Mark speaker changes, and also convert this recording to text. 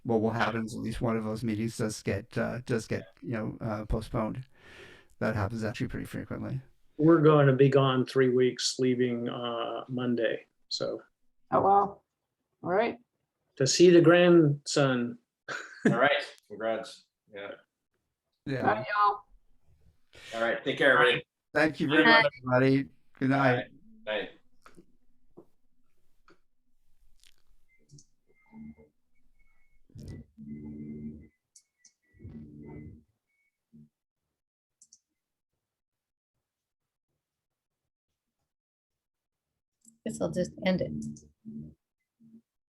Speaker 1: what will happen is at least one of those meetings does get uh, does get you know uh, postponed. That happens actually pretty frequently.
Speaker 2: We're going to be gone three weeks, leaving uh, Monday. So
Speaker 3: Oh, wow. All right.
Speaker 2: to see the grandson.
Speaker 4: All right, congrats. Yeah.
Speaker 3: Bye,
Speaker 1: Yeah.
Speaker 3: y'all.
Speaker 4: All right, take care, everybody.
Speaker 1: Thank you very
Speaker 4: Good
Speaker 1: much, everybody. Good night.
Speaker 4: Bye.
Speaker 5: Guess I'll just end it.